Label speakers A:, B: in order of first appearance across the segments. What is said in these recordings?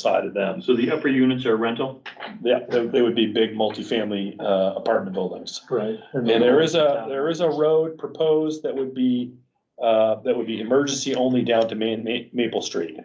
A: side of them.
B: So the upper units are rental?
A: Yeah, they, they would be big multifamily, uh, apartment buildings.
C: Right.
A: And there is a, there is a road proposed that would be, uh, that would be emergency only down to Ma- Ma- Maple Street.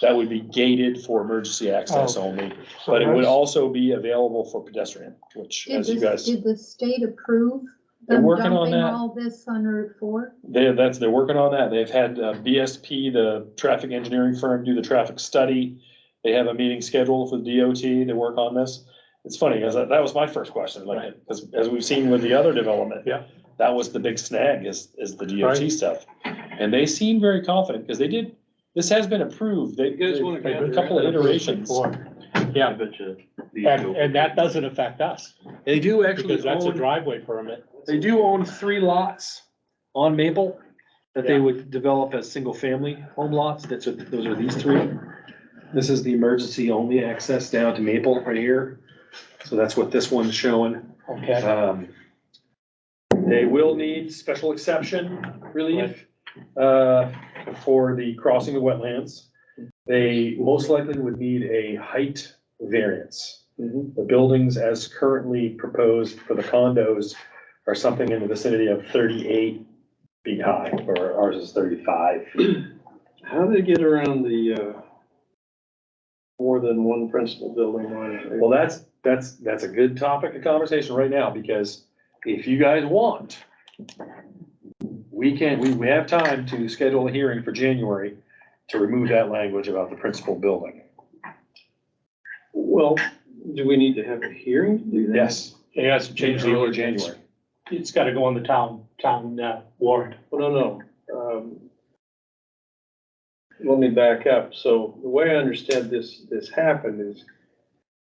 A: That would be gated for emergency access
C: Oh.
A: only, but it would also be available for pedestrian, which
D: Did
A: as you
D: the,
A: guys,
D: did the state approve
A: They're
D: them
A: working on
D: dumping
A: that.
D: all this on Route four?
A: they, that's, they're working on that. They've had uh, BSP, the traffic engineering firm, do the traffic study. They have a meeting scheduled for DOT to work on this. It's funny, because that that was my first question, like,
C: Right.
A: as, as we've seen with the other development.
C: Yeah.
A: That was the big snag is, is the DOT
C: Right.
A: stuff. And they seem very confident, because they did, this has been approved. They,
E: You guys wanna
A: they've been a
E: gather
A: couple of
E: it
A: iterations.
B: I
C: Yeah,
B: bet you. these
C: and,
B: will-
C: and that doesn't affect us,
E: They do actually
C: because that's a
E: own,
C: driveway permit.
E: they do own three lots on Maple that they
C: Yeah.
E: would develop as single-family home lots. That's what, those are these three. This is the emergency only access down to Maple right here. So that's what this one's showing.
C: Okay.
E: Um, They will need special exception relief, uh, for the crossing of wetlands.
A: They most likely would need a height variance. The buildings as currently proposed for the condos are something in the vicinity of thirty-eight feet high, or ours is thirty-five.
F: How do they get around the, uh, more than one principal building line?
A: Well, that's, that's, that's a good topic of conversation right now, because if you guys want, we can, we, we have time to schedule a hearing for January to remove that language about the principal building.
F: Well, do we need to have a hearing to do that?
A: Yes,
C: Yes,
A: change the order January.
C: It's gotta go on the town, town uh, warrant.
F: Well, no, no. um, Let me back up. So the way I understand this, this happened is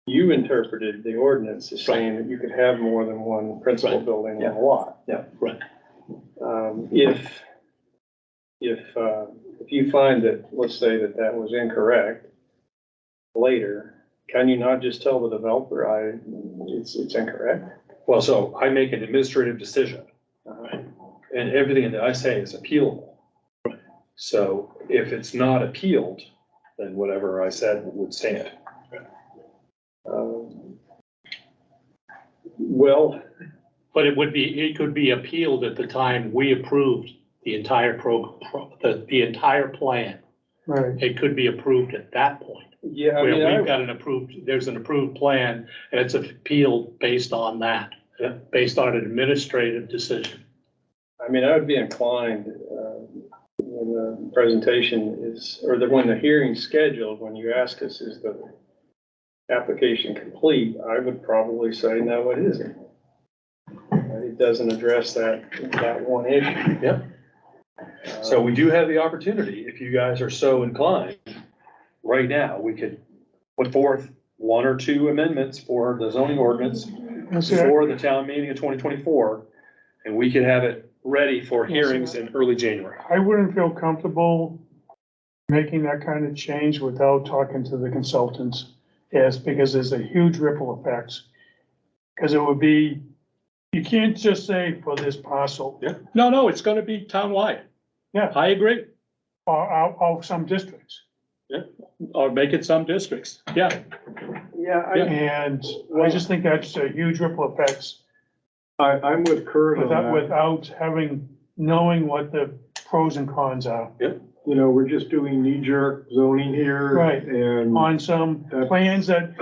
F: you interpreted the ordinance as saying that you could have more than one principal
C: Right.
F: building on a lot.
A: Yeah.
C: Right.
F: Um, if, if, uh, if you find that, let's say that that was incorrect later, can you not just tell the developer, I, it's, it's incorrect?
A: Well, so I make an administrative decision,
F: Uh,
A: and everything that I say is appealable. So if it's not appealed, then whatever I said would stand.
F: um, Well,
C: But it would be, it could be appealed at the time we approved the entire pro, pro- the, the entire plan.
F: Right.
C: It could be approved at that point.
F: Yeah, I mean,
C: Where we've
F: I,
C: got an approved, there's an approved plan, and it's appealed based on that,
A: Yeah.
C: based on an administrative decision.
F: I mean, I would be inclined, uh, when the presentation is, or the, when the hearing's scheduled, when you ask us, is the application complete, I would probably say, no, it isn't. It doesn't address that, that one issue.
A: Yep.
F: Uh,
A: So we do have the opportunity, if you guys are so inclined, right now, we could put forth one or two amendments for the zoning ordinance for the town meeting of twenty twenty-four, and we could have it ready for hearings in early January.
G: I wouldn't feel comfortable making that kind of change without talking to the consultants. Yes, because there's a huge ripple effects. Because it would be, you can't just say for this parcel
C: No, no, it's gonna be townwide.
G: Yeah.
C: I agree,
G: or, or, or some districts.
C: or make it some districts, yeah.
F: Yeah,
G: And I just think that's a huge ripple effects
F: I, I, I'm with Kurt on
G: without,
F: that.
G: without having, knowing what the pros and cons are
F: You know, we're just doing knee jerk zoning here.
G: Right.
F: And
G: on some
F: That-
G: plans that,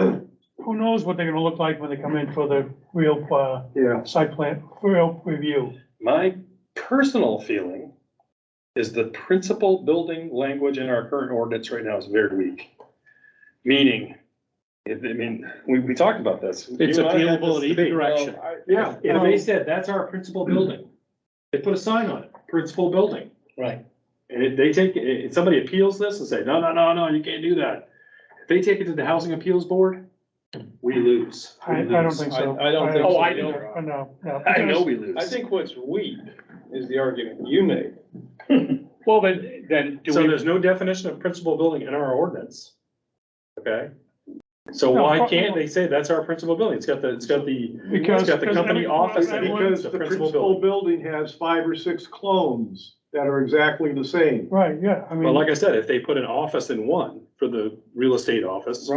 G: who knows what they're gonna look like when they come in for the real, uh,
F: Yeah,
G: site plan, real review.
A: My personal feeling is the principal building language in our current ordinance right now is very weak. Meaning, if, I mean, we, we talked about this.
C: It's
A: You and I had this
C: appealable in either
A: debate.
C: direction.
E: Yeah, and they said, that's our principal building. They put a sign on it, principal building.
C: Right.
E: And if they take, if somebody appeals this and say, no, no, no, no, you can't do that. If they take it to the housing appeals board, we lose.
G: I, I don't think so.
F: I- I don't think
C: so
G: I
C: either.
G: don't- uh, No, no.
A: I know we lose.
F: I think what's weak is the argument you made.
C: Well, then, then do
A: So
C: we,
A: there's no definition of principal building in our ordinance. Okay? So
G: No,
A: why
G: pro-
A: can't they say that's our principal building? It's got the, it's got the,
G: Because.
A: it's got the
G: because
A: company
G: every-
A: office and
G: everyone-
A: it's the principal building.
F: building has five or six clones. that are exactly the same.
G: Right, yeah, I mean.
A: Well, like I said, if they put an office in one for the real estate office.